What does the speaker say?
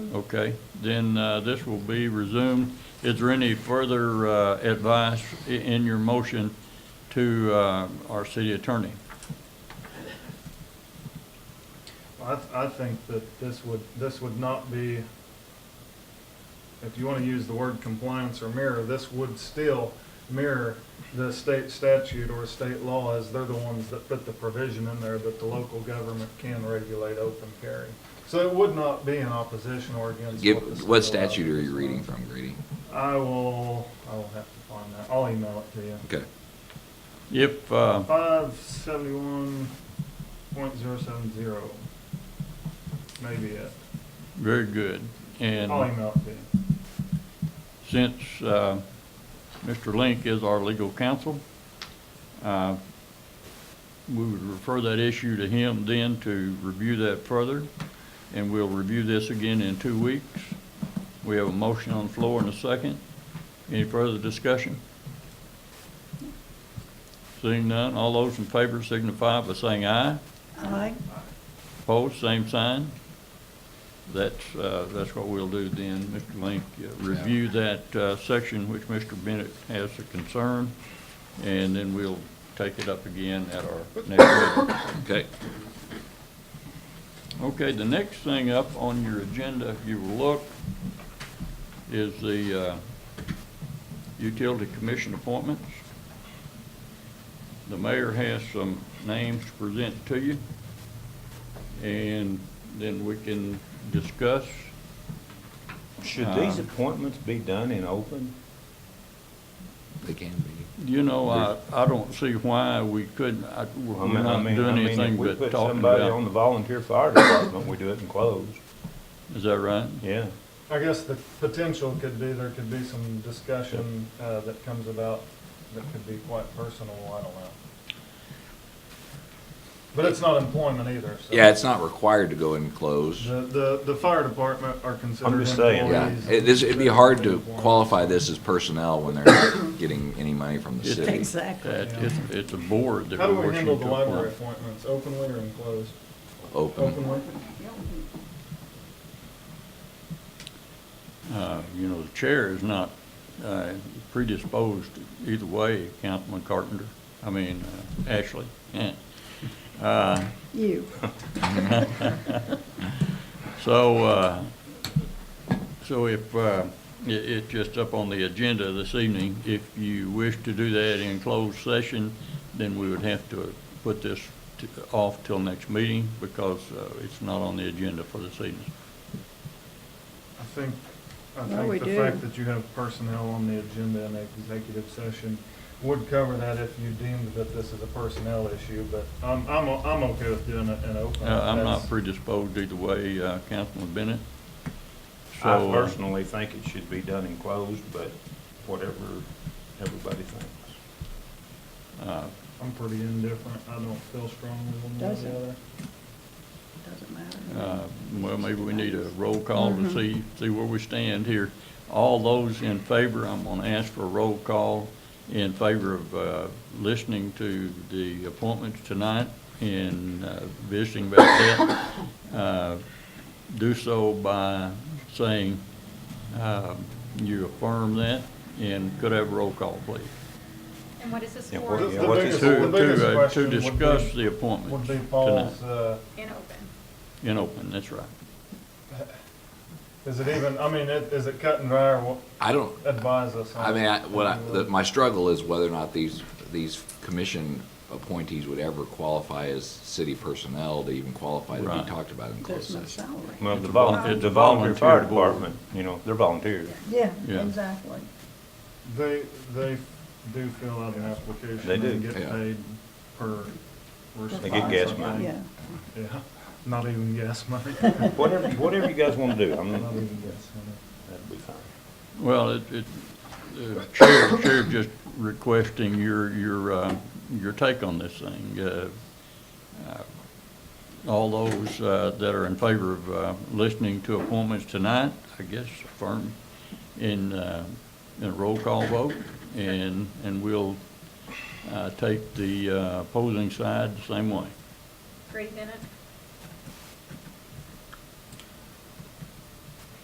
Okay, then uh, this will be resumed. Is there any further uh, advice i- in your motion to uh, our city attorney? I, th- I think that this would, this would not be, if you want to use the word compliance or mirror, this would still mirror the state statute or state law as they're the ones that put the provision in there that the local government can regulate open carry. So it would not be in opposition or against. Give, the what state allows. statute are you reading from, Grady? I will, I will have to find that. I'll email it to you. Okay. If, uh, Five seventy-one point zero seven zero. Maybe it. very good. I'll And email it to you. since uh, Mr. Link is our legal counsel, uh, we would refer that issue to him then to review that further, and we'll review this again in two weeks. We have a motion on the floor and a second. Any further discussion? Seeing none, all those in favor signify by saying aye. Aye. Opposed, same sign. That's, uh, that's what we'll do then, Mr. Link. uh, Review that uh, section which Mr. Bennett has a concern, and then we'll take it up again at our next meeting. Okay. Okay, the next thing up on your agenda, if you will look, is the uh, utility commission appointments. The mayor has some names to present to you, and then we can discuss. Should these Uh, appointments be done in open? They can be. You know, I, I don't see why we couldn't, I- we're I mean- I not mean- I doing mean, if anything we but put talking Somebody on about, the volunteer fire department, we do it in closed, is that right? yeah. I guess the potential could be, there could be some discussion uh, that comes about that could be quite personal, I don't know. But it's not employment either, so. Yeah, it's not required to go in closed. The, the, the fire department are considered just saying. Yeah, employees. it, this, it'd be hard to Employees. qualify this as personnel when they're not getting any money from the It- city. Exactly. That, it's, it's a board that we're How do we working handle the to library appoint. appointments, openly or enclosed? Open. Openly? Uh, You know, the chair is not uh, predisposed either way, Councilman Carpenter, I mean, uh, Ashley. Eh. Uh, You. So, uh, so if, uh, i it's just up on the agenda this evening, if you wish to do that in closed session, then we would have to put this t- off till next meeting because uh, it's not on the agenda for this evening. I think, I No, think we the do. fact that you have personnel on the agenda in executive session would cover that if you deemed that this is a personnel issue, but I'm, I'm, o- I'm okay with doing it in open. Uh, I'm not That's- predisposed either way, uh, Councilman Bennett. I So, uh, personally think it should be done in closed, but whatever everybody thinks. uh, I'm pretty indifferent. I don't feel strongly one way or the Doesn't. other. Doesn't matter. uh, Well, maybe we need a roll call to Mhm. see, see where we stand here. All those in favor, I'm going to ask for a roll call in favor of uh, listening to the appointments tonight and uh, visiting about that. Uh, Do so by saying uh, you affirm that, and could I have a roll call, please? And what is this Yeah, for? what- The- yeah, the what biggest- is- the To, biggest to, uh, question to would be- discuss the Would appointments be tonight Paul's, uh, In open. in open, that's right. is it even, I mean, it- is it cut and dry or what, I don't, advise us on? I mean, I, what I, the, my struggle is whether or not these, these commission appointees would ever qualify as city personnel to even qualify to Right. be talked about in closed There's no session. salary. Well, the a vol- volunteer, it's a the volunteer fire volunteer board. department, you know, they're volunteers. Yeah, Yeah. exactly. They, they do fill out an application. They do. And get Yeah. paid per response. They get gas I money. think. Yeah. Yeah, not even gas money. Whatever, whatever you guys wanna do, I'm, Not that'd even gas money. be fine. Well, it, it, uh, Chair, Chair just requesting your, your, uh, your take on this thing. Uh, uh, All those uh, that are in favor of uh, listening to appointments tonight, I guess, affirm in, uh, in a roll call vote, and, and we'll uh, take the uh, opposing side the same way. Grady Bennett?